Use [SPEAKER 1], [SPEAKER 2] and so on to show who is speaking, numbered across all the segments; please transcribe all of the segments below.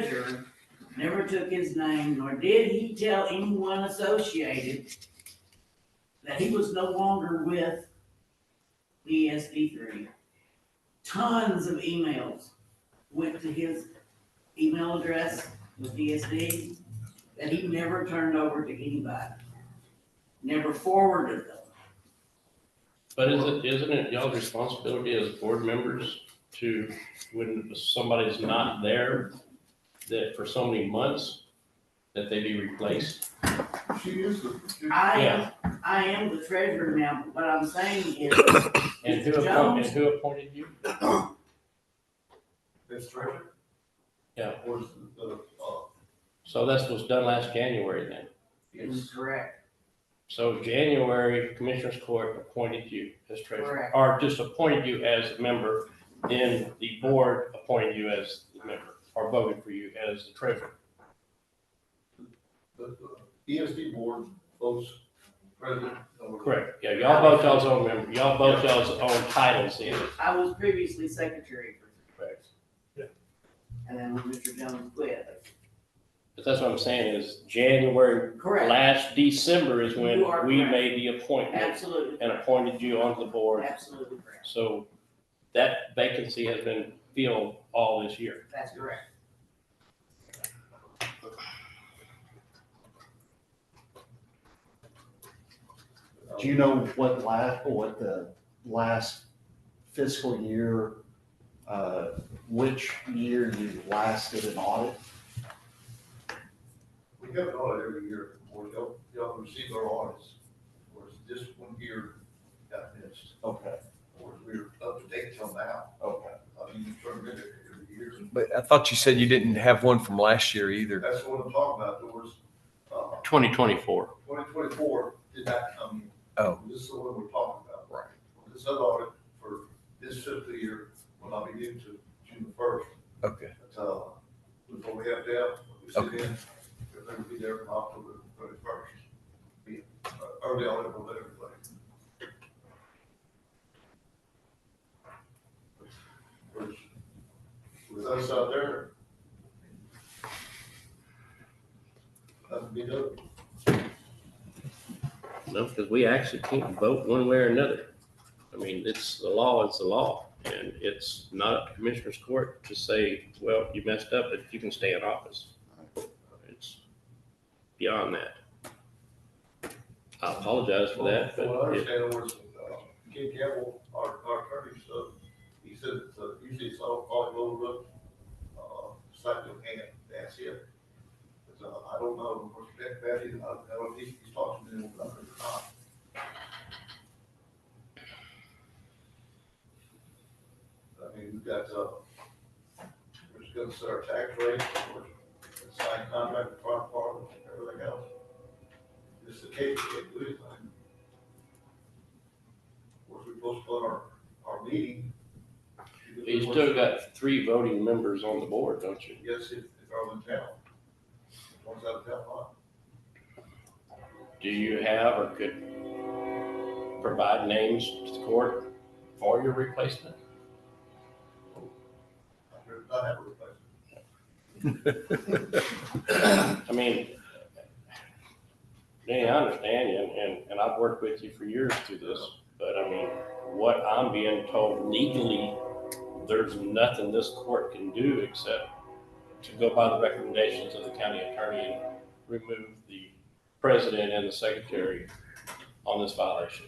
[SPEAKER 1] treasurer never took his name, nor did he tell anyone associated that he was no longer with BSD three. Tons of emails went to his email address with BSD that he never turned over to anybody. Never forwarded them.
[SPEAKER 2] But isn't, isn't it y'all's responsibility as board members to, when somebody's not there, that for so many months, that they be replaced?
[SPEAKER 3] She is the, she-
[SPEAKER 1] I am,
[SPEAKER 2] Yeah.
[SPEAKER 1] I am the treasurer now, but what I'm saying is,
[SPEAKER 2] And who
[SPEAKER 1] Mr.
[SPEAKER 2] appointed,
[SPEAKER 1] Jones?
[SPEAKER 2] and who appointed you?
[SPEAKER 3] that's treasure.
[SPEAKER 2] Yeah.
[SPEAKER 3] Was the, uh,
[SPEAKER 2] So that's what's done last January then.
[SPEAKER 3] E
[SPEAKER 1] is correct,
[SPEAKER 2] So January, Commissioners Court appointed you as treasurer,
[SPEAKER 1] Correct.
[SPEAKER 2] or just appointed you as a member, then the board appointed you as the member, or voted for you as the treasurer.
[SPEAKER 3] the, the ESD board votes president. over-
[SPEAKER 2] Correct, yeah, y'all both y'all's own member, y'all both y'all's own titles in it.
[SPEAKER 1] I was previously secretary for
[SPEAKER 2] Correct.
[SPEAKER 1] And then when Mr. Jones quit.
[SPEAKER 2] But that's what I'm saying is January,
[SPEAKER 1] Correct,
[SPEAKER 2] last December is when
[SPEAKER 1] You are
[SPEAKER 2] we
[SPEAKER 1] correct.
[SPEAKER 2] made the appointment
[SPEAKER 1] absolutely,
[SPEAKER 2] and appointed you onto the board.
[SPEAKER 1] absolutely correct,
[SPEAKER 2] So that vacancy has been filled all this year.
[SPEAKER 1] that's correct.
[SPEAKER 4] Do you know what last, what the last fiscal year, uh, which year you last did an audit?
[SPEAKER 3] We have an audit every year, or y'all, y'all receive our audits, or it's this one year got missed,
[SPEAKER 4] Okay,
[SPEAKER 3] or we're up to date till now.
[SPEAKER 4] okay.
[SPEAKER 3] I mean, you turn it in every year.
[SPEAKER 5] But I thought you said you didn't have one from last year either.
[SPEAKER 3] That's what I'm talking about, there was, uh,
[SPEAKER 2] Twenty twenty-four.
[SPEAKER 3] twenty twenty-four did not come in.
[SPEAKER 5] Oh.
[SPEAKER 3] This is the one we're talking about.
[SPEAKER 5] Right.
[SPEAKER 3] This other audit for this fiscal year will not be due to June the first.
[SPEAKER 5] Okay.
[SPEAKER 3] That's, uh, before we have to have, we sit in, they're gonna be there from October thirty-first. uh, Early on, it will let everybody. Which, With us out there. That'd be dope.
[SPEAKER 2] No, because we actually can't vote one way or another. I mean, it's, the law is the law, and it's not up to Commissioners Court to say, well, you messed up, but you can stay in office. It's beyond that. I apologize for that,
[SPEAKER 3] Well, I
[SPEAKER 2] but it-
[SPEAKER 3] understand was, uh, Ken Campbell, our, our attorney, so, he said, it's, uh, usually it's all, all over, uh, side of hand, that's it. But, uh, I don't know, of course, that, that is, I don't know if he's he's talking to him about it or not. I mean, we've got, uh, we're just gonna set our tax rate, we're gonna sign contract, with farm department, everything else. This is the case, we can't do anything. Or if we postpone our, our meeting.
[SPEAKER 2] you still got three voting members on the board, don't you?
[SPEAKER 3] Yes, if, if I'm in town. Once out of town, huh?
[SPEAKER 2] Do you have or could provide names to the court for your replacement?
[SPEAKER 3] I heard not have a replacement.
[SPEAKER 2] I mean, Danny, I understand you, and- and, and I've worked with you for years through this, but I mean, what I'm being told legally, there's nothing this court can do except to go by the recommendations of the county attorney and remove the president and the secretary on this violation.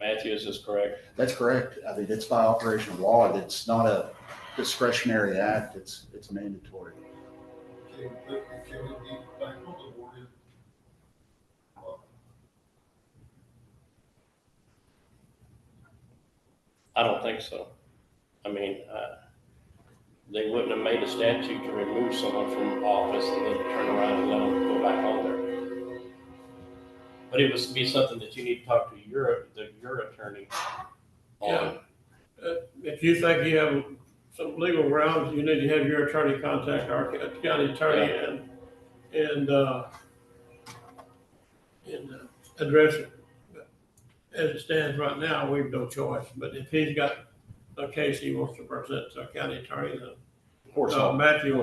[SPEAKER 2] Matthew, is this correct?
[SPEAKER 4] That's correct. I mean, it's by operation of law. It's not a discretionary act. It's, it's mandatory.
[SPEAKER 3] Can, can- can we be back on the board in? uh,
[SPEAKER 2] I don't think so. I mean, uh, they wouldn't have made a statute to remove someone from office and then turn around and let them go back on there. But it would be something that you need to talk to your, the, your attorney
[SPEAKER 6] Yeah.
[SPEAKER 2] on.
[SPEAKER 6] If you think you have some legal grounds, you need to have your attorney contact our county attorney and, and, uh, and uh, address it. But As it stands right now, we've no choice, but if he's got a case he wants to present to our county attorney, then,
[SPEAKER 4] Of course,
[SPEAKER 6] uh, Matthew will